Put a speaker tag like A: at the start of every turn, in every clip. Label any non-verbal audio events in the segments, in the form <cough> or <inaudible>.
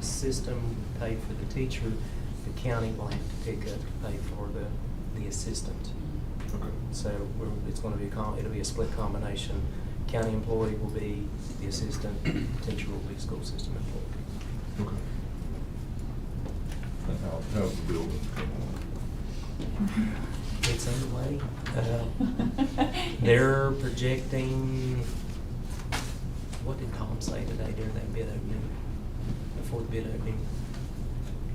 A: system paid for the teacher, the county will have to pick up to pay for the, the assistant.
B: Okay.
A: So we're, it's gonna be, a com- it'll be a split combination. County employee will be the assistant, teacher will be school system employee.
B: Okay. And how, how's the building coming
A: It's underway. Uh, They're projecting, what did Colin say today during that bid opening? The fourth bid opening?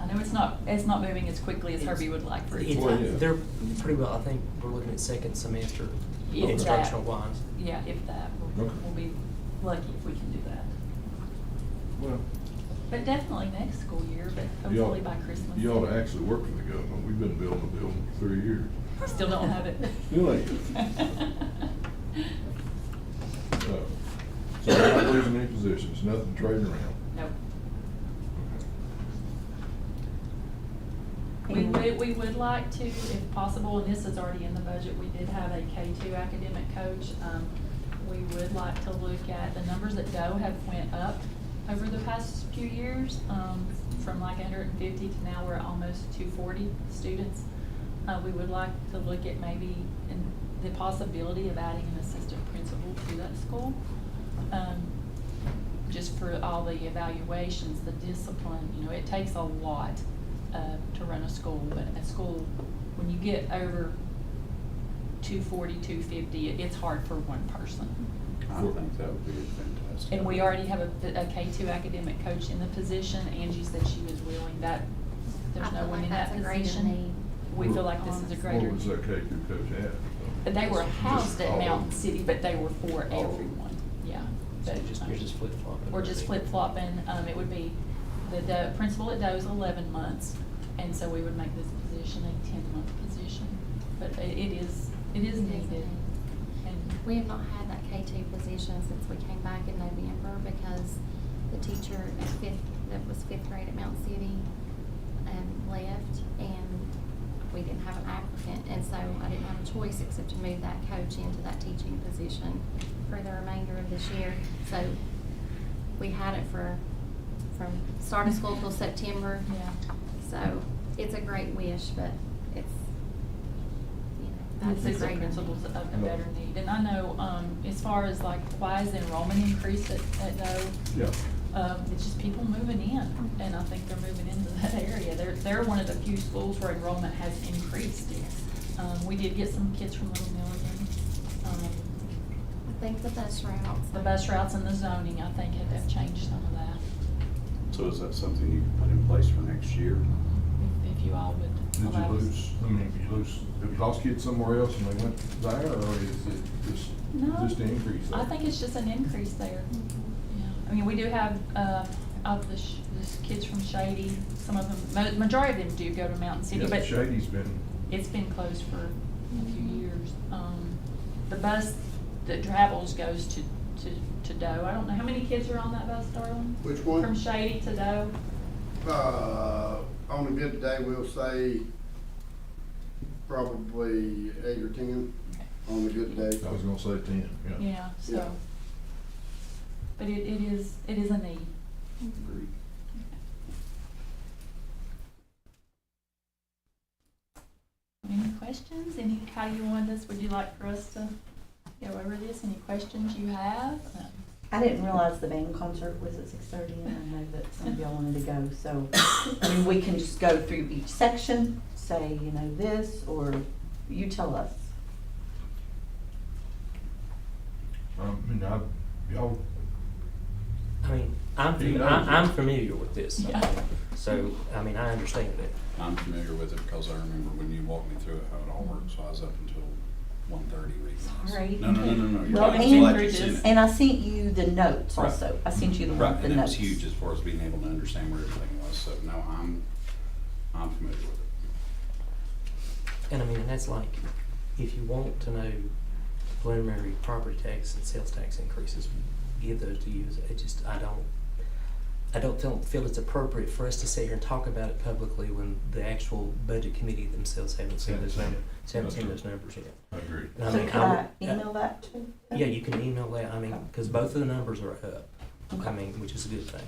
C: I know it's not, it's not moving as quickly as Herbie would like for it
A: It's-
B: Well, yeah.
C: to.
A: They're pretty well, I think we're looking at second semester
C: If that-
A: instructional wise.
C: Yeah, if that, we'll,
B: Okay.
C: we'll be lucky if we can do that.
B: Well,
C: But definitely next school year, but
B: you
C: hopefully
B: ought,
C: by Christmas.
B: you ought to actually work for the government. We've been building a building for three years.
C: Still don't have it.
B: Really? So, so we're not losing any positions, nothing trading around.
C: <laughs> Nope.
B: Okay.
C: We would, we would like to, if possible, and this is already in the budget, we did have a K two academic coach. Um, We would like to look at the numbers that Doe have went up over the past few years, um, from like hundred and fifty to now we're at almost two forty students. Uh, we would like to look at maybe in the possibility of adding an assistant principal to that school. Um, just for all the evaluations, the discipline, you know, it takes a lot uh, to run a school, but a school, when you get over 240, 250, it- it's hard for one person.
D: I think that would be fantastic.
C: And we already have a a K-2 academic coach in the position. Angie said she was willing that, there's
E: I
C: no
E: feel
C: one in
E: like
C: that
E: that's a greater
C: position. We feel like this is a
E: Honestly.
C: greater,
B: What was that K two coach at?
C: but they were
B: Just
C: housed at
B: all of
C: Mountain
B: them.
C: City, but they were for
B: All of them.
C: everyone, yeah.
A: So
C: But,
A: you're just,
C: um,
A: you're just flip flopping.
C: Or just flip flopping, um, it would be, the, the principal at Doe is eleven months, and so we would make this position a ten-month position. But i- it is, it is needed, and
E: We have not had that K two position since we came back in November because the teacher at fifth, that was fifth grade at Mount City, um, left and we didn't have an applicant. And so I didn't have a choice except to move that coach into that teaching position for the remainder of this year. So we had it for, from start of school till September.
C: Yeah.
E: So it's a great wish, but it's, you know,
C: the
E: that's a
C: assistant
E: great.
C: principal's a, a better need. And I know, um, as far as like, why is enrollment increased at, at Doe?
B: Yeah.
C: Um, it's just people moving in, and I think they're moving into that area. They're, they're one of the few schools where enrollment has increased. Um, we did get some kids from Little Milligan, um,
E: I think the bus routes.
C: The bus routes and the zoning, I think, have have changed some of that,
D: So is that something you can put in place for next year?
C: if- if you all would
B: Did you
C: allow us.
B: lose, I mean, did you lose, did you lost kids somewhere else and they went there, or is it just,
C: No.
B: just an increase?
C: I think it's just an increase there.
E: Mhm.
C: Yeah, I mean, we do have, uh, of the, sh- the kids from Shady, some of them, ma- majority of them do go to Mountain City,
B: Yeah,
C: but
B: Shady's been,
C: it's been closed for a few
E: Mhm.
C: years. Um, the bus that travels goes to, to, to Doe. I don't know, how many kids are on that bus, darling?
F: Which
C: From
F: one?
C: Shady to Doe?
F: Uh, on a good day, we'll say probably eight or ten on a good day.
B: I was gonna say ten, yeah.
C: Yeah,
F: Yeah.
C: so. But it, it is, it is a need.
E: Mm-hmm.
D: Agreed.
C: Any questions? Any, how you want this? Would you like for us to go over this? Any questions you have?
G: I didn't realize the band concert was at six thirty, and I know that some of y'all wanted to go, so, I mean, we can just go through each section, say, you know, this, or you tell us.
B: Um, I mean, I, y'all,
A: I mean, I'm,
B: He
A: fam-
B: knows
A: I-
B: it.
A: I'm familiar with this,
C: Yeah.
A: so, I mean, I understand it.
D: I'm familiar with it because I remember when you walked me through it, how it all worked, so I was up until one thirty reading. this.
C: Sorry.
D: No, no, no, no, no. you're
G: Well,
D: right.
G: and-
D: Glad you've seen it.
G: And I sent you the notes
D: Right.
G: also, I sent you the, the
D: Right,
G: notes.
D: and it was huge as far as being able to understand where everything was, so no, I'm, I'm familiar with it.
A: And I mean, that's like, if you want to know preliminary property tax and sales tax increases, give those to you, it just, I don't, I don't feel, feel it's appropriate for us to sit here and talk about it publicly when the actual budget committee themselves haven't seen those numbers, haven't seen those numbers yet.
B: I agree.
A: And I
G: So
A: mean,
G: could
A: I
G: I
A: would-
G: email that to?
A: Yeah, you can email that, I mean, because both of the numbers are up, I
G: Okay.
A: mean, which is a good thing.